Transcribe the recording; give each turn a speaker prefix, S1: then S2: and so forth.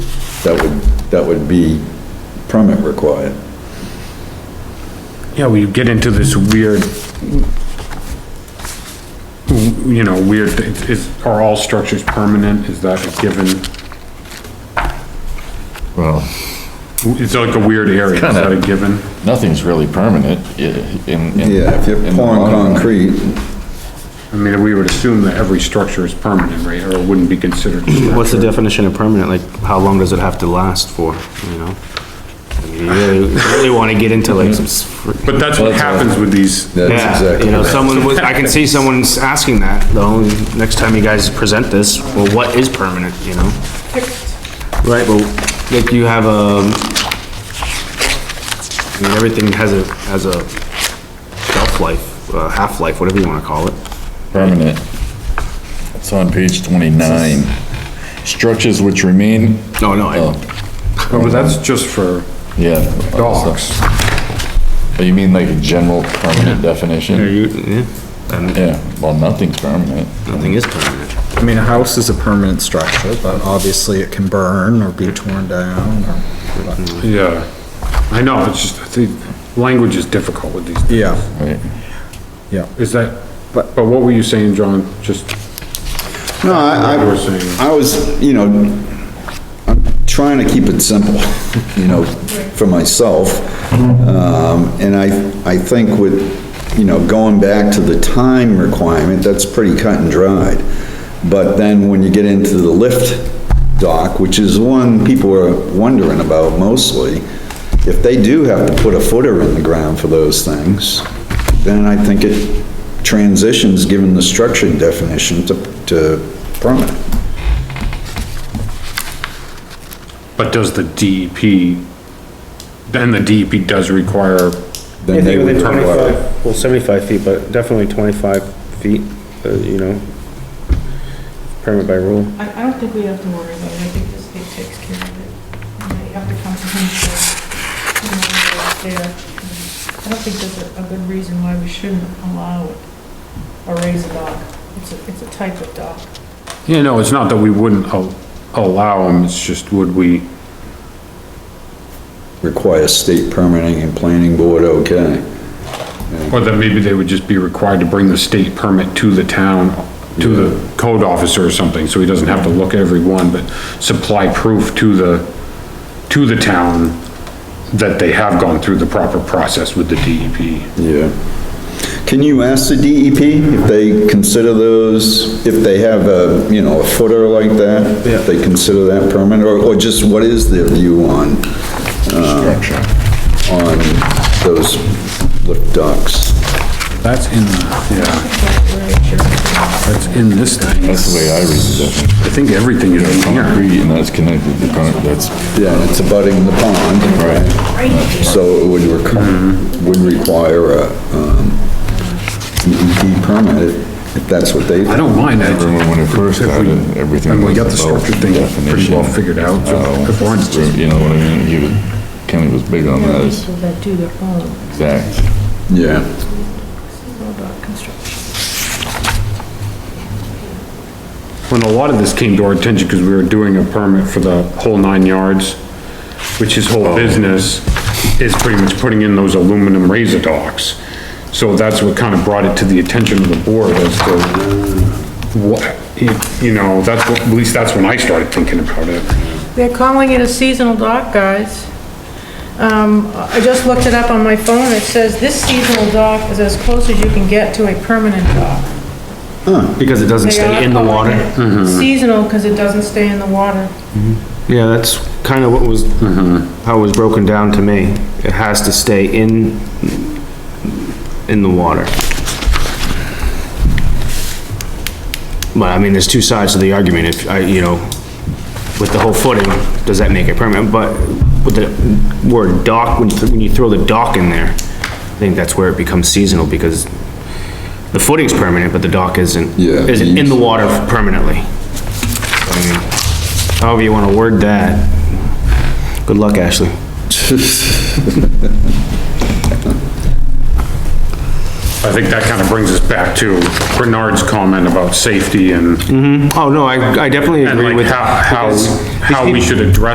S1: that would, that would be permit required.
S2: Yeah, we get into this weird, you know, weird, thi- is, are all structures permanent? Is that a given?
S3: Well,
S2: It's like a weird area. Is that a given?
S3: nothing's really permanent i- in. in-
S1: Yeah, if you're
S3: in the
S1: pouring
S3: long run.
S1: concrete,
S2: I mean, we would assume that every structure is permanent, right? Or it wouldn't be considered. a structure.
S4: What's the definition of permanent? Like, how long does it have to last for, you know? I mean, You really, really wanna get into like some. s-
S2: But that's what happens with these,
S1: that's
S4: Yeah,
S1: exactly.
S4: you know,
S1: right.
S4: someone, was- I can see someone's asking that, though, next time you guys present this, well, what is permanent, you know? Right, well, like you have a, I mean, everything has a, has a shelf life, uh, half-life, whatever you wanna call it.
S3: Permanent. It's on page twenty-nine. Structures which remain,
S4: No, no, I,
S3: oh,
S2: Oh, but that's just for
S3: yeah.
S2: dogs.
S3: Oh, You mean like a general permanent definition?
S4: you, yeah,
S3: Yeah, well, nothing's permanent.
S4: nothing is permanent.
S5: I mean, a house is a permanent structure, but obviously it can burn or be torn down or,
S2: Yeah. I know, it's just, I think, language is difficult with these.
S5: yeah,
S3: Right.
S5: yeah.
S2: Is that, but
S5: But-
S2: what were you saying, John? Just,
S1: No, I,
S2: You were saying-
S1: I, I was, you know, I'm trying to keep it simple, you know, for myself. Um, and I, I think with, you know, going back to the time requirement, that's pretty cut and dried. But then when you get into the lift dock, which is one people are wondering about mostly, if they do have to put a footer in the ground for those things, then I think it transitions, given the structure definition, to, to permanent.
S2: but does the DEP, then the DEP does require
S1: Then they would require.
S6: well, seventy-five feet, but definitely twenty-five feet, uh, you know, permit by rule.
S7: I, I don't think we have to worry about it, I think the state takes care of it. And You have to come to him for, you know, what's there. I don't think there's a, a good reason why we shouldn't allow it or raise a dock. It's a, it's a type of dock.
S2: Yeah, no, it's not that we wouldn't al- allow them, it's just would we,
S1: Require state permitting and planning board, okay.
S2: or that maybe they would just be required to bring the state permit to the town, to the code officer or something, so he doesn't have to look at every one, but supply proof to the, to the town that they have gone through the proper process with the E DEP.
S1: Yeah. Can you ask the DEP if they consider those, if they have a, you know, a footer like that? If they consider that permanent, or, or just what is their view on, uh,
S3: Structure.
S1: on those lift docks?
S2: That's in, the- yeah,
S7: That's where it should
S2: that's in this thing.
S3: That's the way I read the definition.
S2: I think everything is in here.
S3: Concrete, and that's connected to concrete, that's,
S1: Yeah, and it's abutting the pond. Right.
S7: be. Right.
S1: So it would require, would require a, um, DEP permit if- if that's what they.
S2: I don't mind that.
S3: remember when it first
S2: If we-
S3: started, everything
S2: And we
S3: was
S2: got the
S3: about
S2: structure thing pretty well
S3: definition. Oh.
S2: figured out, so if we're honest,
S3: you know what I mean? He was, Kenny was big on
S7: There are
S3: that,
S7: people that do their own,
S3: exact.
S1: Yeah.
S7: about construction.
S2: when a lot of this came to our attention, because we were doing a permit for the whole nine yards, which his
S3: Oh.
S2: whole business is pretty much putting in those aluminum razor docks. So that's what kind of brought it to the attention of the board as to what, you know, that's what, at least that's when I started thinking about it.
S7: They're calling it a seasonal dock, guys. Um, I just looked it up on my phone, it says this seasonal dock is as close as you can get to a permanent dock.
S4: Because it doesn't
S7: They are
S4: stay in the water. Mm-hmm.
S7: calling it Seasonal, because it doesn't stay in the water.
S4: Yeah, that's kind of what was, how it was broken down to me. It has to stay in, in the water. But I mean, there's two sides to the argument. If I, you know, with the whole footing, does that make it permanent? But with the word dock, when, you- when you throw the dock in there, I think that's where it becomes seasonal because the footing's permanent, but the dock isn't.
S1: Yeah.
S4: Isn't in the water permanently. I mean, However you wanna word that. Good luck, Ashley.
S2: I think that kind of brings us back to Bernard's comment about safety and,
S4: Oh, no, I, I definitely
S2: and
S4: agree
S2: like
S4: with.
S2: how, how,
S4: because-
S2: how we should address